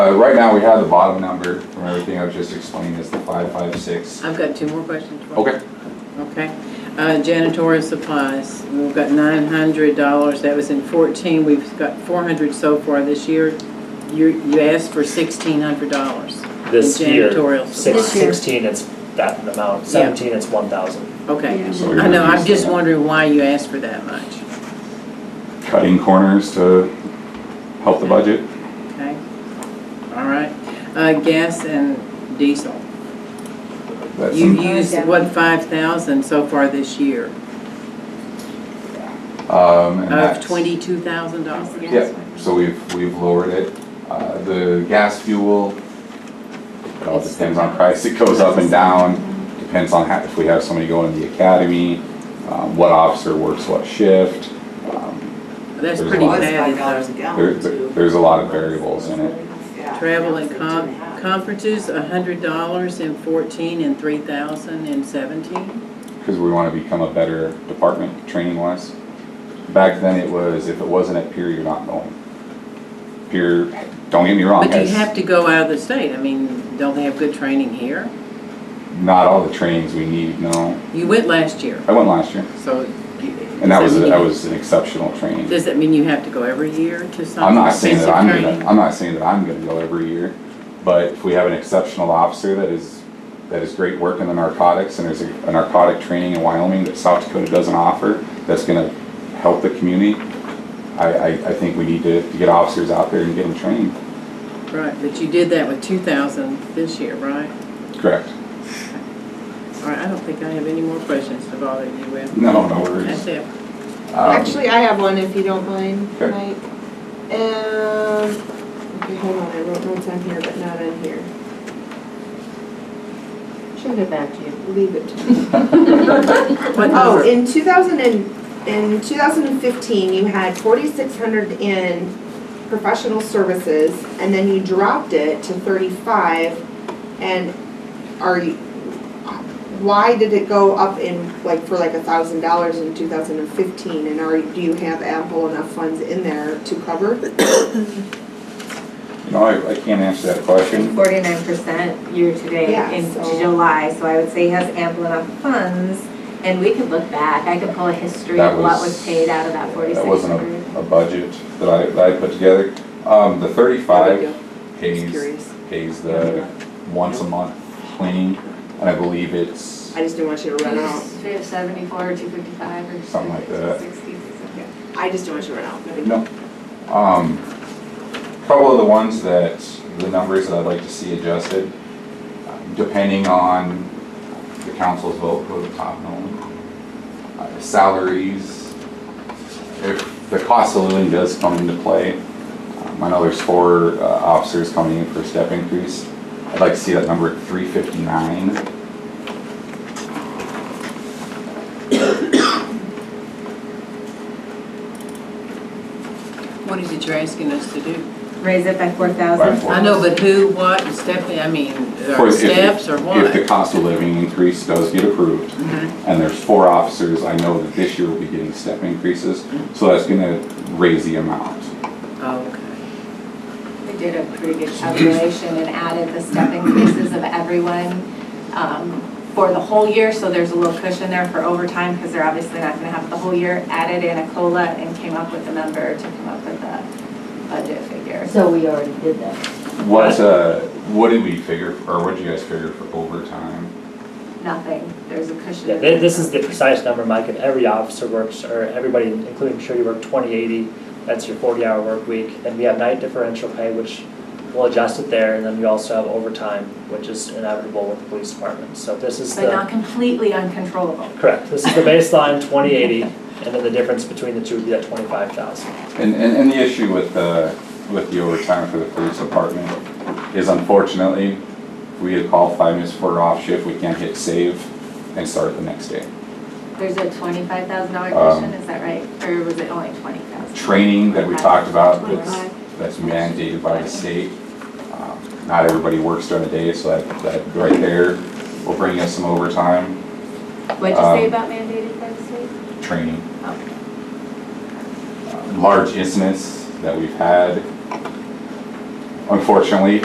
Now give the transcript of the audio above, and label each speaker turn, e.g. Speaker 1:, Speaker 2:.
Speaker 1: uh, right now, we have the bottom number from everything I've just explained is the five five six.
Speaker 2: I've got two more questions. for you.
Speaker 1: Okay,
Speaker 2: Okay. Uh, Janitorial supplies, we've got nine hundred dollars, that was in fourteen, we've got four hundred so far this year. You, you asked for sixteen hundred dollars.
Speaker 3: This year,
Speaker 2: Janitorial
Speaker 3: six,
Speaker 4: supplies. This year.
Speaker 3: sixteen, it's that amount, seventeen, it's one thousand.
Speaker 2: Okay.
Speaker 4: Yeah.
Speaker 2: I know, I'm just wondering why you asked for that much,
Speaker 1: cutting corners to help the budget.
Speaker 2: okay? All right. Uh, Gas and diesel,
Speaker 1: That's
Speaker 2: you
Speaker 4: That's-
Speaker 2: used, what, five thousand so far this year?
Speaker 1: um, and
Speaker 2: Of
Speaker 1: that's-
Speaker 2: twenty-two thousand dollars?
Speaker 1: Yeah, so we've, we've lowered it. Uh, The gas fuel, it all
Speaker 2: It's-
Speaker 1: depends on price, it goes up and down, depends on how, if we have somebody going to the academy, um, what officer works what shift. Um,
Speaker 2: That's
Speaker 1: There's
Speaker 2: pretty
Speaker 1: a lot.
Speaker 2: bad, though.
Speaker 1: There, there's a lot of variables in it.
Speaker 2: Travel and con- conferences, a hundred dollars in fourteen and three thousand in seventeen?
Speaker 1: because we want to become a better department training wise. Back then it was, if it wasn't at Pier, you're not going. Pier, don't get me wrong,
Speaker 2: But you have
Speaker 1: has
Speaker 2: to go out of the state, I mean, don't they have good training here?
Speaker 1: not all the trainings we need, no.
Speaker 2: You went last year,
Speaker 1: I went last year,
Speaker 2: so.
Speaker 1: and that was, that was an exceptional training.
Speaker 2: Does that mean you have to go every year to some?
Speaker 1: I'm not saying that I'm
Speaker 2: expensive
Speaker 1: gonna,
Speaker 2: training?
Speaker 1: I'm not saying that I'm gonna go every year, but if we have an exceptional officer that is, that is great work in the narcotics, and there's a a narcotic training in Wyoming that South Dakota doesn't offer, that's gonna help the community, I, I, I think we need to, to get officers out there and get them trained.
Speaker 2: Right, but you did that with two thousand this year, right?
Speaker 1: Correct.
Speaker 2: All right, I don't think I have any more questions to bother you with.
Speaker 1: No, no worries.
Speaker 2: That's it.
Speaker 1: Um,
Speaker 5: Actually, I have one if you don't mind,
Speaker 1: Sure.
Speaker 5: Mike. Um, okay, hold on, I wrote notes on here, but not on here.
Speaker 4: She'll get back to you.
Speaker 5: Leave it to me.
Speaker 2: What
Speaker 5: Oh,
Speaker 2: number?
Speaker 5: in two thousand and, in two thousand and fifteen, you had forty-six hundred in professional services, and then you dropped it to thirty-five, and are you, why did it go up in, like, for like a thousand dollars in two thousand and fifteen, and are, do you have ample enough funds in there to cover?
Speaker 1: You know, I, I can't answer that question.
Speaker 4: Forty-nine percent year-to-date
Speaker 5: Yeah,
Speaker 4: in
Speaker 5: so-
Speaker 4: July, so I would say he has ample enough funds. And we could look back, I could pull a history
Speaker 1: That
Speaker 4: of what
Speaker 1: was-
Speaker 4: was paid out of that forty-six
Speaker 1: That wasn't
Speaker 4: hundred.
Speaker 1: a, a budget that I, that I put together. Um, the thirty-five
Speaker 5: Just
Speaker 1: pays,
Speaker 5: curious.
Speaker 1: pays the once a month cleaning, and I believe it's,
Speaker 5: I just didn't want you to run out.
Speaker 6: Seventy-four, two fifty-five, or.
Speaker 1: Something like that.
Speaker 6: 60, something.
Speaker 5: I just didn't want you to run out. No big deal.
Speaker 1: no. Um, couple of the ones that, the numbers that I'd like to see adjusted, depending on the council's vote, go to top known. Uh, Salaries, if the cost of living does come into play, um, I know there's four uh, officers coming in for a step increase. I'd like to see that number at three fifty-nine.
Speaker 2: What is it you're asking us to do?
Speaker 4: Raise it by four
Speaker 1: By
Speaker 4: thousand.
Speaker 1: four.
Speaker 2: I know, but who, what, and Stephanie, I mean,
Speaker 1: For
Speaker 2: are
Speaker 1: if the-
Speaker 2: steps or
Speaker 1: If the
Speaker 2: what?
Speaker 1: cost of living increase does get approved,
Speaker 2: Mhm.
Speaker 1: and there's four officers, I know that this year will be getting step increases, so that's gonna raise the amount.
Speaker 2: Oh, Okay.
Speaker 6: We did a pretty good calculation and added the step increases of everyone um, for the whole year, so there's a little cushion there for overtime, because they're obviously not gonna have it the whole year. Added in a COLA and came up with a number to come up with a budget figure.
Speaker 7: So we already did that.
Speaker 1: What, uh, what did we figure, or what did you guys figure for overtime?
Speaker 6: Nothing, there's a cushion.
Speaker 3: Yeah, thi- this is the precise number, Mike, and every officer works, or everybody, including Shirley, work twenty eighty, that's your forty hour work week. Then we have night differential pay, which we'll adjust it there, and then you also have overtime, which is inevitable with the police department, so this is the.
Speaker 6: But not completely uncontrollable.
Speaker 3: Correct, this is the baseline, twenty eighty, and then the difference between the two would be that twenty-five thousand.
Speaker 1: And, and, and the issue with, uh, with the overtime for the police department is unfortunately, if we get a call five minutes before off shift, we can't hit save and start the next day.
Speaker 6: There's a twenty-five thousand dollar
Speaker 1: Um,
Speaker 6: cushion, is that right? Or was it only twenty thousand?
Speaker 1: Training that we talked about, that's,
Speaker 5: Twenty-five.
Speaker 1: that's mandated by the state. Um, Not everybody works during the day, so that, that right there will bring us some overtime
Speaker 6: What'd you say
Speaker 1: Um,
Speaker 6: about mandated by the state?
Speaker 1: training. Uh,
Speaker 6: Oh.
Speaker 1: large incidents that we've had. Unfortunately,